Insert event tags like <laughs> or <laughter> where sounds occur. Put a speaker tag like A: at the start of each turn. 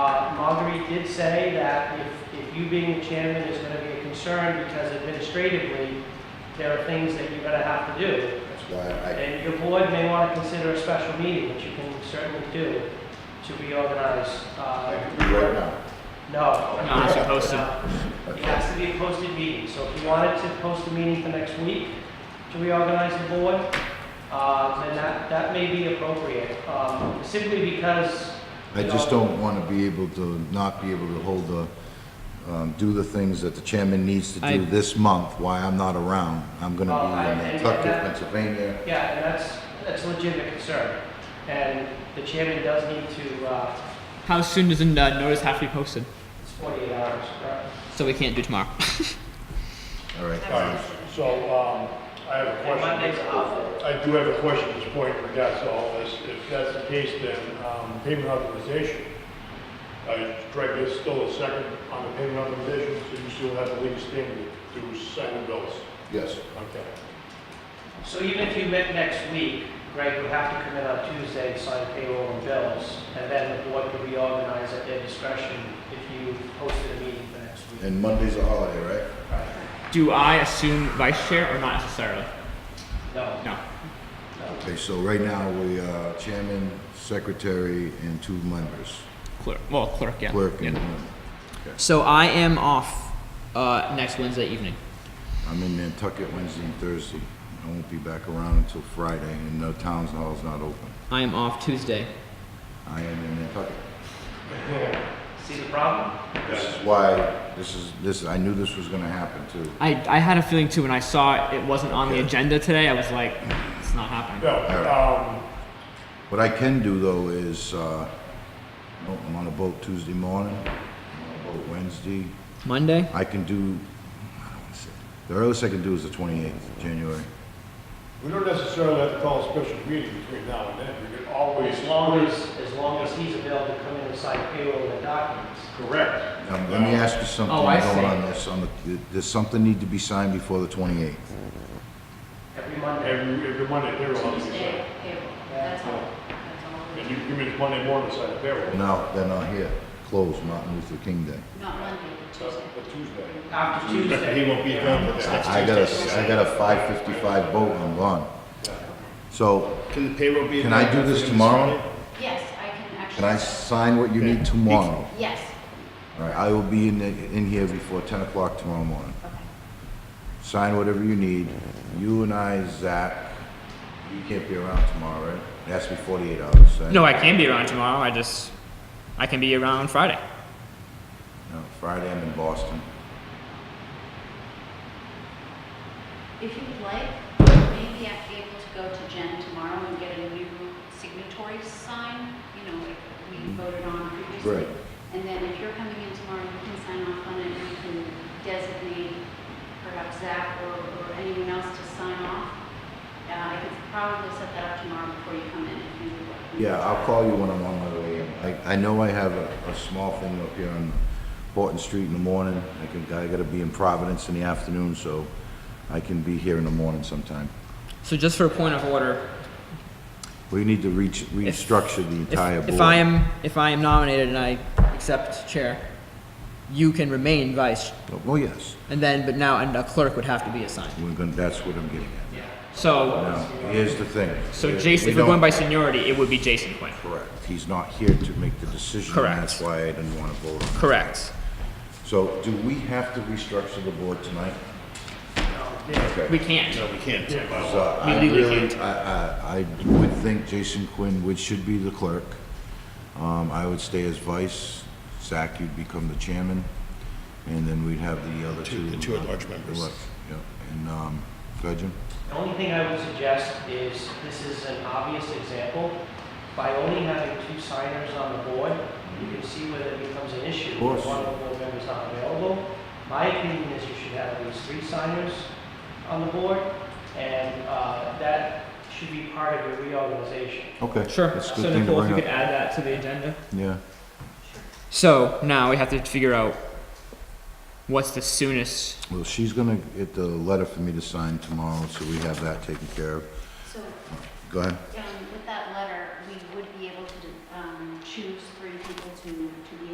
A: Boundary Uh, did say that if, if you being the chairman is gonna be a concern, because administratively, there are things that you're gonna have to do.
B: That's why
A: And your board may want to consider a special meeting, which you can certainly do, to reorganize.
B: I,
A: uh,
B: I could be right now.
A: No.
C: No, it's a posted-
A: No. It has to be a posted meeting, so if you wanted to post a meeting for next week to reorganize the board, uh, then that, that may be appropriate, um, simply because.
B: I
A: you
B: just
A: know,
B: don't want to be able to, not be able to hold the, um, do the things that the chairman needs to
C: I-
B: do this month while I'm not around. I'm going
A: Well, I-
B: to be in
A: and-
B: Nantucket,
A: and-
B: Pennsylvania.
A: Yeah, and that's, that's a legitimate concern, and the chairman does need to, uh,
C: How soon does the uh, notice have to be posted?
A: it's 48 hours, correct?
C: So we can't do tomorrow.
B: All right.
D: All right, so, um, I have a
A: And Monday's
D: question.
A: off.
D: I do have a question at this point in regards to all this. If that's the case, then, um, payment authorization. Uh, Greg, there's still a second on the payment authorization, so you still have the legal standing to sign the bills.
B: Yes,
D: Okay.
A: So even if you met next week, Greg would have to come in on Tuesday to sign payroll and bills, and then the board could reorganize at their discretion if you posted a meeting for next week.
B: and Monday's a holiday, right?
C: <laughs> do I assume vice chair or not necessarily?
A: No,
C: No.
A: no.
B: Okay, so right now we are chairman, secretary, and two members,
C: Clerk. Well, clerk. Yeah.
B: clerk
C: Yeah.
B: and one.
C: So I am off uh, next Wednesday evening.
B: I'm in Nantucket Wednesday and Thursday. I won't be back around until Friday, and the town hall's not open.
C: I am off Tuesday.
B: I am in Nantucket.
A: See the problem?
B: This is why, this is, this, I knew this was gonna happen too.
C: I, I had a feeling too when I saw it wasn't on
B: Okay.
C: the agenda today. I was like, it's not happening.
D: No, um,
B: What I can do though is, uh, no, I'm on a boat Tuesday morning, I'm on a boat Wednesday.
C: Monday.
B: I can do, I don't wanna say- the earliest I can do is the twenty-eighth, January.
D: we don't necessarily have to call a special meeting between now and then. We could always.
A: As long as, as long as he's available to come in and sign payroll and documents.
D: Correct.
B: Um, let me ask you something
C: Oh, I see.
B: going on this, on the, does something need to be signed before the twenty-eighth?
A: Every Monday,
D: Every, every Monday, they're on.
E: Tuesday payroll, that's all, that's
D: And
E: all.
D: you come in Monday morning, sign the payroll.
B: No, they're not here, closed Martin Luther King Day.
E: Not Monday, but Tuesday.
D: But Tuesday.
A: after Tuesday.
D: He won't be around for that.
B: I got a, I got a five fifty-five boat, I'm gone. So,
F: Can the payroll be?
B: Can I do this tomorrow?
E: Yes, I can actually.
B: can I sign what you need tomorrow?
E: Yes,
B: All right, I will be in, the- in here before ten o'clock tomorrow morning.
E: okay,
B: Sign whatever you need. You and I, Zach, you can't be around tomorrow, right? It has to be forty-eight hours, right?
C: No, I can be around tomorrow. I just I can be around Friday.
B: No, Friday, I'm in Boston.
E: if you would like, maybe I'd be able to go to Jen tomorrow and get a new signatory sign, you know, like we voted on previously.
B: Mm-hmm. Right.
E: And then if you're coming in tomorrow, you can sign off on it, and you can designate perhaps Zach or, or anyone else to sign off. Uh, I could probably set that up tomorrow before you come in, if you would like.
B: Yeah, I'll call you when I'm on my way in. I, I know I have a, a small thing up here on Horton Street in the morning. I can, I gotta be in Providence in the afternoon, so I can be here in the morning sometime.
C: So just for a point of order,
B: We need to reach, restructure the
C: if,
B: entire board.
C: if I am if I am nominated and I accept chair, you can remain vice,
B: Well, yes,
C: and then but now and a clerk would have to be assigned.
B: we're gonna, that's what I'm getting at.
C: So
B: Now, here's the thing.
C: so
B: We-
C: Jason,
B: we
C: if we're going
B: don't-
C: by seniority, it would be Jason Quinn.
B: Correct. He's not here to make the decision. and
C: Correct.
B: That's why I didn't want to vote on it.
C: Correct.
B: So do we have to restructure the board tonight?
C: We
B: Okay.
C: can't.
F: No, we can't.
B: So
C: we
B: I
C: legally
B: really,
C: can't.
B: I, I, I would think Jason Quinn would, should be the clerk. Um, I would stay as vice. Zach, you'd become the chairman. And then we'd have the other two.
F: Two- the two
B: uh,
F: at-large members.
B: elect- Yeah, and, um, go ahead, Jim.
A: The only thing I would suggest is, this is an obvious example, by only having two signers on the board, you can see whether it becomes an issue.
B: Of course.
A: One of the board members not available. My opinion is you should have at least three signers on the board, and uh, that should be part of your reorganization.
B: Okay.
C: Sure.
B: That's a good
C: So
B: thing to
C: Nicole, if you
B: bring
C: could
B: up.
C: add that to the agenda.
B: Yeah.
C: So now we have to figure out what's the soonest.
B: Well, she's gonna get the letter for me to sign tomorrow, so we have that taken care of.
E: So
B: Go ahead.
E: Yeah, um,